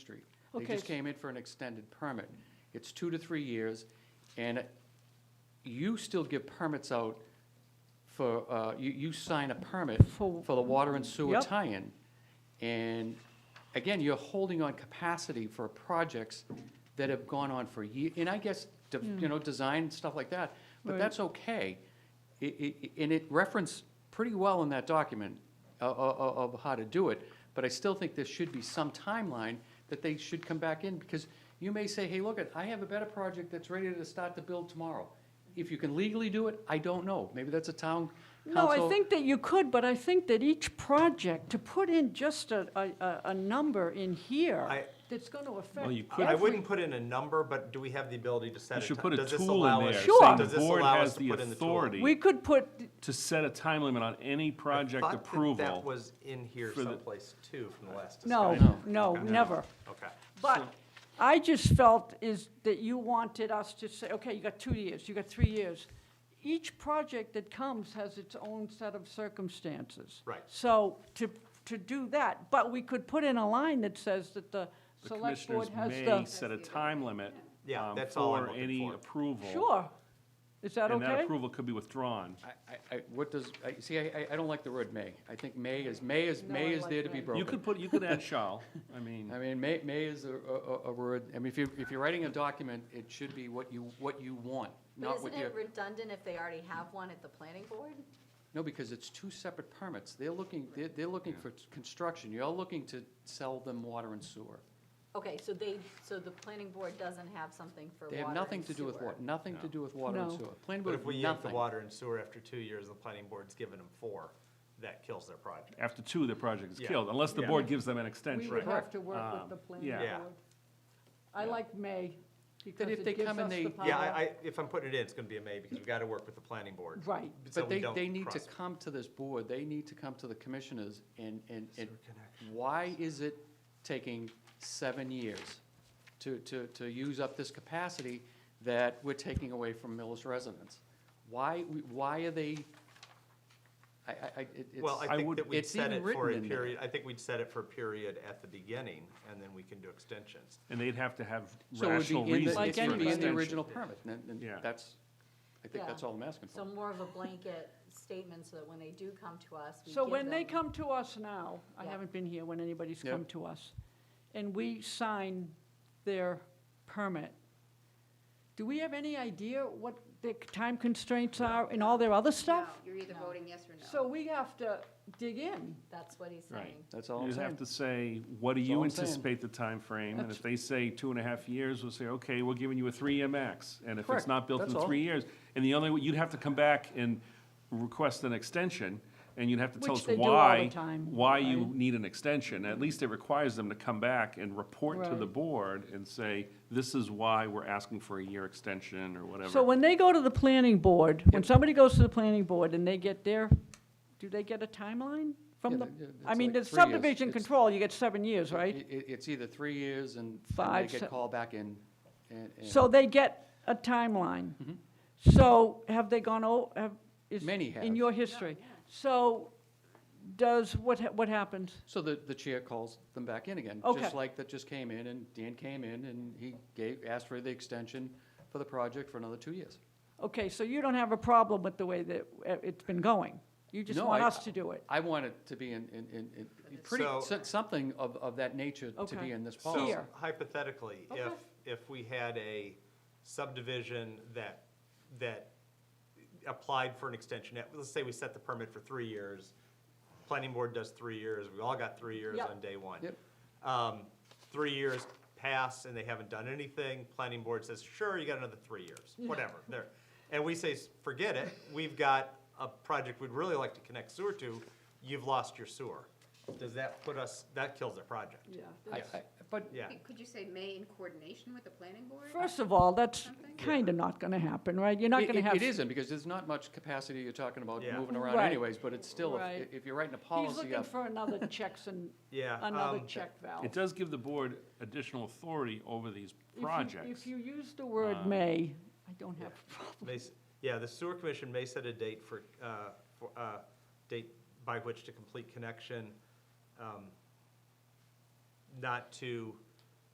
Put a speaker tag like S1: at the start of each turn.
S1: Street. They
S2: Okay.
S1: just came in for an extended permit. It's two to three years, and you still give permits out for, uh, you, you sign a permit
S2: For-
S1: for the water and sewer
S2: Yep.
S1: tie-in. And again, you're holding on capacity for projects that have gone on for years. and I guess, de- you know, design and stuff like that, but
S2: Hmm. Right.
S1: that's okay. It- it- And it referenced pretty well in that document o- o- o- of how to do it, but I still think there should be some timeline that they should come back in, because you may say, hey, look, it, I have a better project that's ready to start to build tomorrow. If you can legally do it, I don't know. Maybe that's a town council.
S2: No, I think that you could, but I think that each project, to put in just a, a- a, a number in here,
S3: I-
S2: that's going to affect
S4: Well, you could-
S3: I
S2: every-
S3: wouldn't put in a number, but do we have the ability to set a
S4: You
S3: ti-
S4: should put a
S3: does this
S4: tool
S3: allow
S4: in
S3: us-
S4: there,
S2: Sure.
S4: saying the
S3: Does this
S4: board
S3: allow
S4: has
S3: us to
S4: the
S3: put in the tool?
S2: We
S4: authority
S2: could put,
S4: to set a time limit on any project
S3: Thought that That
S4: approval.
S3: was in here
S4: for the-
S3: someplace too from the last
S2: no,
S1: No.
S2: no,
S3: Okay.
S2: never.
S3: Okay.
S2: But I just felt is that you wanted us to say, okay, you got two years, you got three years. Each project that comes has its own set of circumstances.
S3: Right.
S2: So to, to do that, but we could put in a line that says that the
S4: The
S2: select board
S4: commissioners
S2: has
S4: may
S2: the,
S4: set a time limit
S3: Yeah,
S4: um,
S3: that's all I'm
S4: for
S3: looking
S4: any
S3: for.
S4: approval.
S2: sure. Is that
S4: And that
S2: okay?
S4: approval could be withdrawn.
S1: I- I, I, what does, I, see, I, I- I don't like the word may. I think may is, may is,
S2: No,
S1: may
S2: I
S1: is
S2: like
S1: there to be
S2: may. You
S1: broken.
S4: You could put, you could add shall, I mean,
S1: I mean, may, may is a, a- a, a word, I mean, if you, if you're writing a document, it should be what you, what you want,
S5: But
S1: not
S5: isn't
S1: what you.
S5: it redundant if they already have one at the planning board?
S1: No, because it's two separate permits. They're looking, they're, they're looking for construction. You're looking to sell them water and sewer.
S5: Okay, so they, so the planning board doesn't have something for water
S1: They have
S5: and
S1: nothing to do with
S5: sewer.
S1: water, nothing to do with water and
S2: No.
S1: sewer. Planning
S3: But
S1: board,
S3: if we yank the
S1: nothing.
S3: water and sewer after two years, the planning board's given them four, that kills their project.
S4: after two, the project is
S3: Yeah.
S4: killed, unless the
S3: Yeah.
S4: board gives them an
S2: We
S4: extension.
S2: would
S1: Right.
S2: have to work with
S4: Um,
S2: the planning
S4: yeah.
S3: Yeah.
S2: board. I like May because
S1: Then if they
S2: it gives
S1: come and
S2: us
S1: they-
S2: the power.
S3: Yeah, I, I, if I'm putting it in, it's gonna be a may, because we've gotta work with the planning board.
S2: Right.
S3: so
S1: But
S3: we
S1: they,
S3: don't
S1: they need to
S3: cross-
S1: come to this board, they need to come to the commissioners and, and, and why is it taking seven years to, to, to use up this capacity that we're taking away from Millis residents? Why, why are they, I, I, I, it- it's.
S3: Well,
S4: I
S3: I think
S4: would-
S3: that we'd
S1: it's
S3: set it
S1: even
S3: for a
S1: written in there.
S3: period, I think we'd set it for a period at the beginning, and then we can do extensions.
S4: And they'd have to have
S1: So it would be
S4: rational
S1: in the-
S4: reasons for
S2: Like
S1: It should be in the
S4: extension.
S1: original permit, and, and
S4: Yeah.
S1: that's, I think
S5: Yeah.
S1: that's all I'm asking for.
S5: So more of a blanket statement so that when they do come to us, we
S2: So
S5: give
S2: when they
S5: them-
S2: come to us now, I
S5: Yeah.
S2: haven't been here when anybody's
S1: Yeah.
S2: come to us, and we sign their permit, do we have any idea what the time constraints are in all their other stuff?
S6: No, you're either
S5: No.
S6: voting yes or no.
S2: So we have to dig in.
S5: That's what he's
S4: Right.
S5: saying.
S1: That's all I'm
S4: You have
S1: saying.
S4: to say, what do
S1: That's all
S4: you
S1: I'm saying.
S4: anticipate the time frame? And
S2: That's-
S4: if they say two and a half years, we'll say, okay, we're giving you a three-year max. And if
S1: Correct.
S4: it's not built
S1: That's
S4: in
S1: all.
S4: three years, and the only, way- you'd have to come back and request an extension, and you'd have to tell
S2: Which
S4: us
S2: they do all the
S4: why,
S2: time,
S4: why you
S2: right?
S4: need an extension. At least it requires them to come back and report to the
S2: Right.
S4: board and say, this is why we're asking for a year extension or whatever.
S2: So when they go to the planning board, when somebody goes to the planning board and they get their, do they get a timeline
S1: Yeah,
S2: from the?
S1: they-
S2: I
S1: it's like
S2: mean, the
S1: three years.
S2: subdivision
S1: It's-
S2: control, you get seven years, right?
S1: It- it- it's either three years and, and
S2: Five,
S1: they
S2: se-
S1: get called back in, and. and-
S2: So they get a timeline. So have they gone, o- have, is.
S1: Mm-hmm. Many have.
S2: In your history. So does, what, ha- what happens?
S1: So the, the chair calls them back in again.
S2: Okay.
S1: Just like that just came in, and Dan came in, and he gave, asked for the extension for the project for another two years.
S2: Okay, so you don't have a problem with the way that uh, it's been going. You just
S1: No,
S2: want
S1: I-
S2: us to do it.
S1: I want it to be in, in, in, in pretty,
S3: So-
S1: so- something of, of that nature to
S2: Okay.
S1: be in this
S3: So
S1: policy.
S2: Here.
S3: Hypothetically, if, if we had a subdivision that, that applied for an extension, at- let's say we set the permit for three years, planning board does three years, we all got three years
S2: Yep.
S3: on day one.
S1: Yep.
S3: Um, Three years pass and they haven't done anything, planning board says, sure, you got another three years, whatever, there. And we say, forget it, we've got a project we'd really like to connect sewer to, you've lost your sewer. Does that put us, that kills their project,
S1: I- I- But,
S3: yeah.
S6: Could- Could you say may in coordination with the planning board?
S2: First of all, that's
S6: Something?
S2: kind of not going to happen, right? You're not
S1: It-
S2: going to
S1: it-
S2: have.
S1: It isn't, because there's not much capacity you're talking about
S3: Yeah.
S1: moving around
S2: Right.
S1: anyways, but it's still,
S2: Right.
S1: if, if you're writing a
S2: He's
S1: policy
S2: looking
S1: up.
S2: for another checks and,
S3: Yeah,
S2: another
S3: um,
S2: check valve.
S4: It does give the board additional authority over these
S2: If you-
S4: projects.
S2: If you use the
S3: Um,
S2: word may, I don't have a problem.
S3: May s- Yeah, the sewer commission may set a date for, uh, for, uh, date by which to complete connection, um, not to